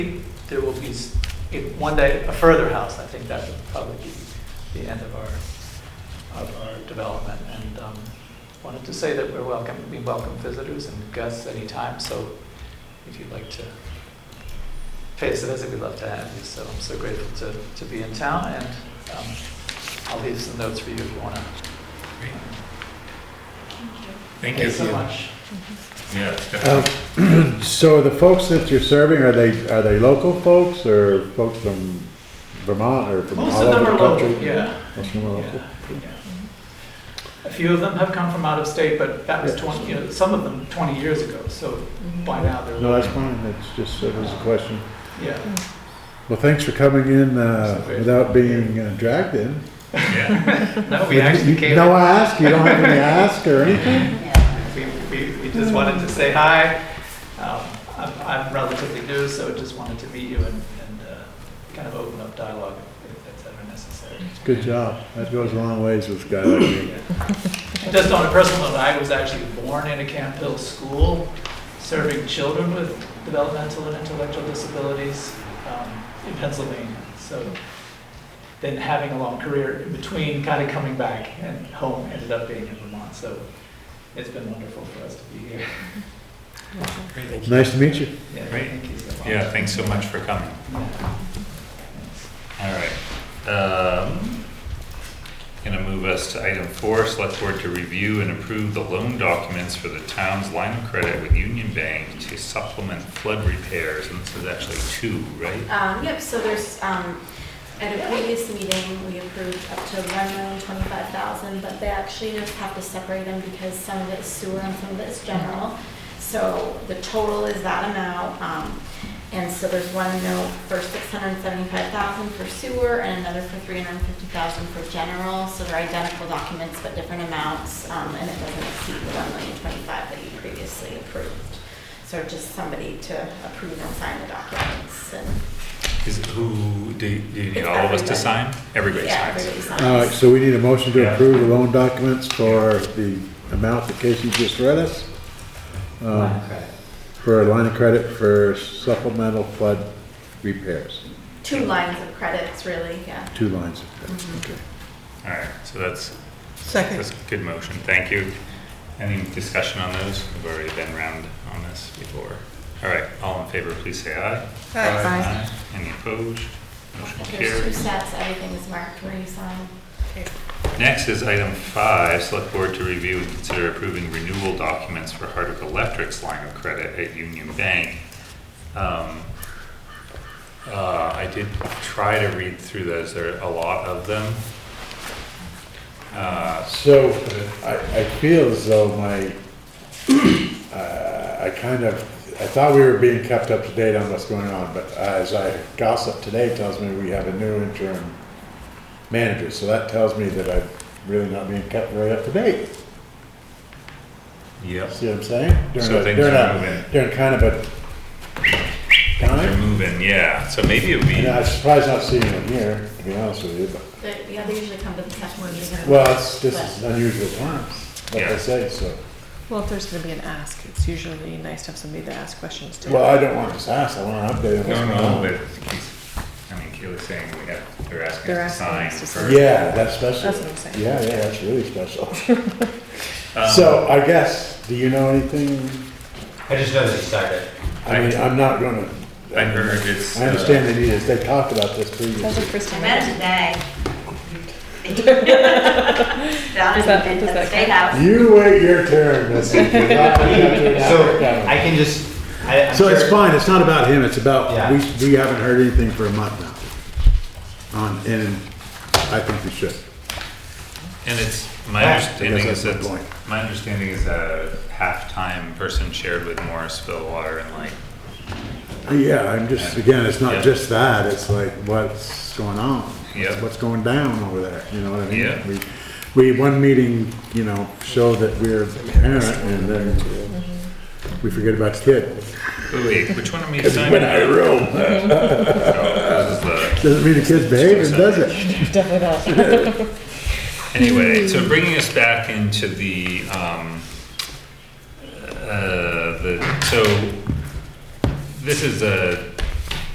There will be, s- if- one day, a further house, I think that would probably be the end of our, of our development. And um, wanted to say that we're welcome, we welcome visitors and guests anytime, so if you'd like to pay us a visit, we'd love to have you. So I'm so grateful to, to be in town, and um, I'll leave some notes for you if you want to. Great. Thank Thank you so much. Yeah, definitely. Um, So the folks that you're serving, are they, are they local folks or folks from Vermont or from Most all of them over are the country? local, yeah. Most of them are local. Yeah, yeah. A few of them have come from out of state, but that was 20, you know, some of them 20 years ago, so 嗯 by now they're. No, that's fine, that's just, it was a question. Yeah, Well, thanks for coming in uh, without being uh, dragged in. Yeah, no, we actually You- came, No ask, you don't have any ask or anything? we, we, we just wanted to say hi. Um, I'm, I'm relatively new, so just wanted to meet you and, and uh, kind of open up dialogue if- if that's ever necessary. Good job, that goes a long ways with guys like me. Yeah. Just on a personal note, I was actually born in a Camp Hill school, serving children with developmental and intellectual disabilities um, in Pennsylvania. So then having a long career in between, kind of coming back and home, ended up being in Vermont. So it's been wonderful for us to be here. Great. Nice to meet you. Yeah, Great. thank you so much. yeah, thanks so much for coming. Yeah. All right. Um, Gonna move us to item four, select board to review and approve the loan documents for the town's line of credit with Union Bank to supplement flood repairs, and this is actually two, right? Um, yep, so there's, um, at a previous meeting, we approved up to one million twenty-five thousand, but they actually just have to separate them because some of it's sewer and some of it's general. So the total is that amount, um, and so there's one note for six hundred and seventy-five thousand for sewer and another for three hundred and fifty thousand for general. So they're identical documents but different amounts, um, and it doesn't exceed the one million twenty-five that you previously approved. So just somebody to approve and sign the documents and Is, who, do, do you need It's all of us to everybody. sign? Everybody yeah, signs. everybody All right, signs. so we need a motion to Yeah. approve the loan documents for the amount that Casey just read us. Um, Okay. for a line of credit for supplemental flood repairs, Two lines of credits, really, yeah. two lines of credit, okay. All right, so that's, Second. that's a good motion, thank you. Any discussion on those? We've already been round on this before. All right, all in favor, please say aye. Aye. Any opposed? Motion If there's two carries. sets, everything is marked where you sign. Next is item five, select board to review and consider approving renewal documents for Hardwick Electric's line of credit at Union Bank. Um, uh, I did try to read through those, there are a lot of them. Uh, So I, I feel as though my, uh, I kind of, I thought we were being kept up to date on what's going on, but as I gossip today tells me we have a new interim manager, so that tells me that I'm really not being kept very up to date. Yep. See what I'm saying? During So a- things during are a- moving. During kind of a They're time, moving, yeah, so maybe it would be, and I'm surprised not seeing him here, to be honest with you, but. They- Yeah, they usually come to the second meeting. Well, it's, this is unusual times, like Yeah. I say, so. Well, if there's gonna be an ask, it's usually nice to have somebody to ask questions to. Well, I don't want to ask, I want an update on what's no, no, going but, he's- I mean, Kayla's saying we have, they're asking They're us to asking sign us to for. on. Yeah, that's special. That's what I'm saying. Yeah, yeah, that's really special. Um, So I guess, do you know anything? I just know that he started. I mean, I'm not gonna, I heard it's. uh, I understand they need this, they talked about this That's the previously. first I time. met him I've- today. Down Does that- in does the that state count? house. You wait your turn, Missy. You're not gonna have to So knock it I down. can just, I, I'm So it's sure- fine, it's not about him, it's about, Yeah. we, we haven't heard anything for a month now. On, and I think we should. And it's, my Yeah, understanding because is Ah, that's that, my point. my understanding is a halftime person shared with Morrisville Water and like, Yeah, I'm just, Yeah. again, it's Yeah. not just that, it's like, what's going on? What's- Yeah. What's going down over there, you know what I mean? Yeah. We, we, one meeting, you know, show that we're the parent, and then we forget about the kid. "Oh, wait, which one am I It's been signing? a room. Oh, this is the- Doesn't mean the kid's behaving, does it? Anyway, Hmm. so bringing us back into the, um, uh, the, so this is a